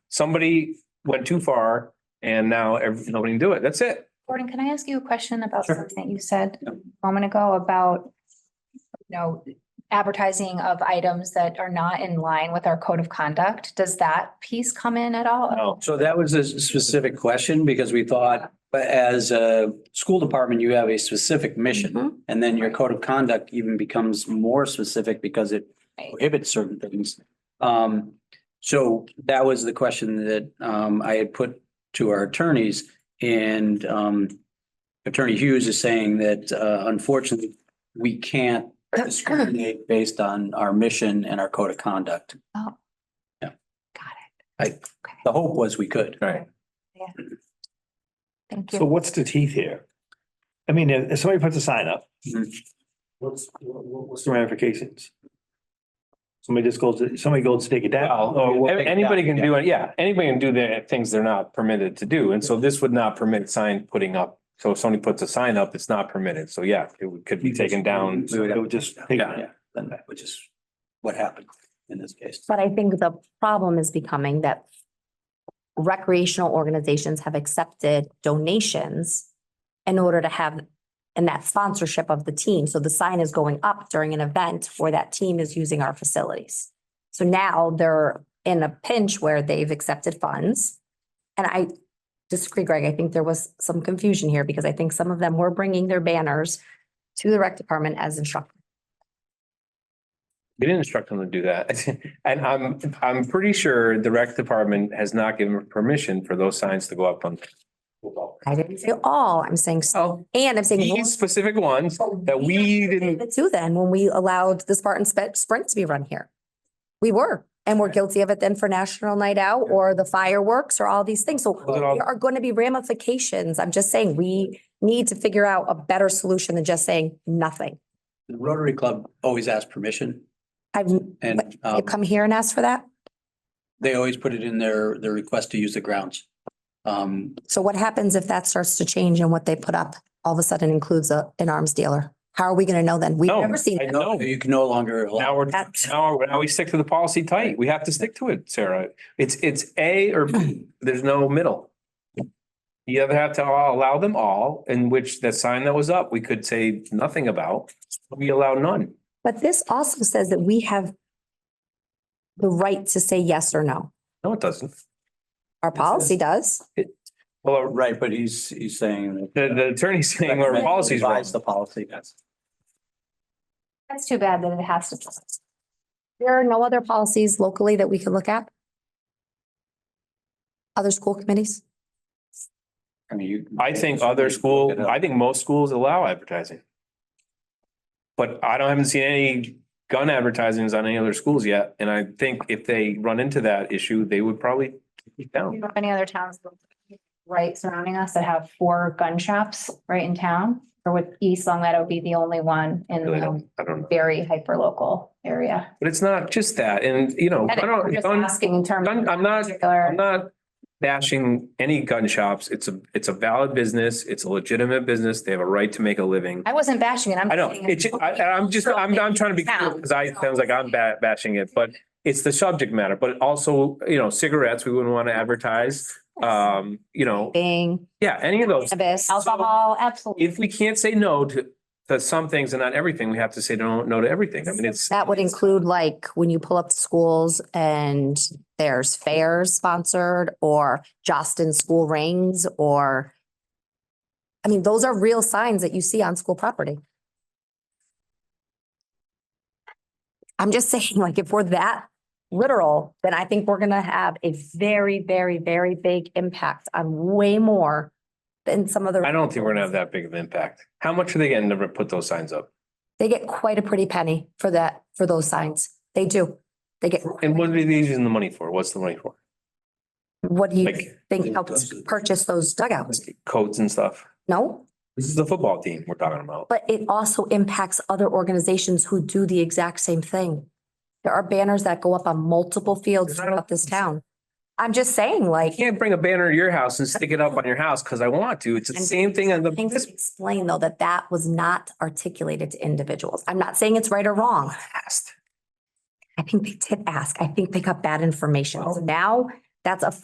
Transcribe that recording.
somebody went too far and now every, nobody can do it. That's it. Gordon, can I ask you a question about Sure. something that you said Yeah. a moment ago about, you know, advertising of items that are not in line with our code of conduct? Does that piece come in at all? No. So that was a specific question because we thought, but as a school department, you have a specific Mhm. mission. And then your code of conduct even becomes more specific because it Right. prohibits certain things. Um, so that was the question that, um, I had put to our attorneys and, um, Attorney Hughes is saying that, uh, unfortunately, we can't discriminate based on our mission and our code of conduct. Oh. Got it. The hope was we could. Right. Thank So you. what's the teeth here? I mean, if if somebody puts a sign up, Mm-hmm. Mhm. what's, what- what- what's the ramifications? Somebody just goes, to- somebody goes to take it down or Well, what? a- anybody can do it. Yeah, anybody can do the things they're not permitted to do. And so this would not permit sign putting up. So if somebody puts a sign up, it's not permitted. So yeah, it would- could be taken down. We would just take it Yeah. down. then, which is what happened in this case. But I think the problem is becoming that recreational organizations have accepted donations in order to have, and that sponsorship of the team. So the sign is going up during an event where that team is using our facilities. So now they're in a pinch where they've accepted funds. And I disagree, Greg. I think there was some confusion here because I think some of them were bringing their banners to the rec department as instructors. We didn't instruct them to do that. And I'm, I'm pretty sure the rec department has not given permission for those signs to go up on. I didn't say all, I'm saying, Oh. and I'm saying. These specific ones that we didn't, Too then, when we allowed the Spartan Spe- Sprint to be run here. We were, and we're guilty of it then for National Night Out or the fireworks or all these things. So Was it all- there are going to be ramifications. I'm just saying, we need to figure out a better solution than just saying nothing. The Rotary Club always asks permission I've, but and you um, come here and ask for that? they always put it in their, their request to use the grounds. Um, So what happens if that starts to change and what they put up all of a sudden includes a, an arms dealer? How are we going to know then? We've No, never seen I it. know. you can no longer. allow- Now we're, That's- now, we're- now we stick to the policy tight. We have to stick to it, Sarah. It's, it's A or B. There's no middle. You either have to all- allow them all, in which the sign that was up, we could say nothing about. We allow none. But this also says that we have the right to say yes or no. No, it doesn't. Our policy does. Well, Right, but he's, he's saying. the, the attorney's saying our policy's wrong. Revise The policy, yes. That's too bad that it has to. There are no other policies locally that we could look at? Other school committees? I mean, you. I think other school, I think most schools allow advertising. But I don't, haven't seen any gun advertisements on any other schools yet, and I think if they run into that issue, they would probably take it We down. don't have Any other towns right surrounding us that have four gun shops right in town? Or would East Long Meadow be the only one in Really the don't- I don't know, very hyper local area? but it's not just that, and you know, I I'm don't, just gun- asking in terms. gun- of I'm not, I'm particular. not bashing any gun shops. It's a, it's a valid business. It's a legitimate business. They have a right to make a living. I wasn't bashing it. I'm. I know, saying it's, I, I'm just, I'm, I'm trying to be clear, because I, it sounds like I'm ba- bashing it, but it's the subject matter, but also, you know, cigarettes, we wouldn't want to advertise. Um, you know, Being yeah, any of those. cannabis. Alcohol, absolutely. If we can't say no to, to some things and not everything, we have to say no, no to everything. I mean, it's. That would include like when you pull up the schools and there's fairs sponsored or Jostin school rings or I mean, those are real signs that you see on school property. I'm just saying, like, if we're that literal, then I think we're gonna have a very, very, very big impact on way more than some of the. I don't think we're gonna have that big of an impact. How much are they getting to put those signs up? They get quite a pretty penny for that, for those signs. They do. They get. And what are they using the money for? What's the money for? What do you Like- think helps purchase those dugouts? Coats and stuff. No, This is the football team we're talking about. but it also impacts other organizations who do the exact same thing. There are banners that go up on multiple fields Then I don't- throughout this town. I'm just saying like, You can't bring a banner to your house and stick it up on your house because I want to. It's the And- same thing on the, things this explain though that that was not articulated to individuals. I'm not saying it's right or wrong. past. I think they did ask. I think they got bad information. So Well- now that's a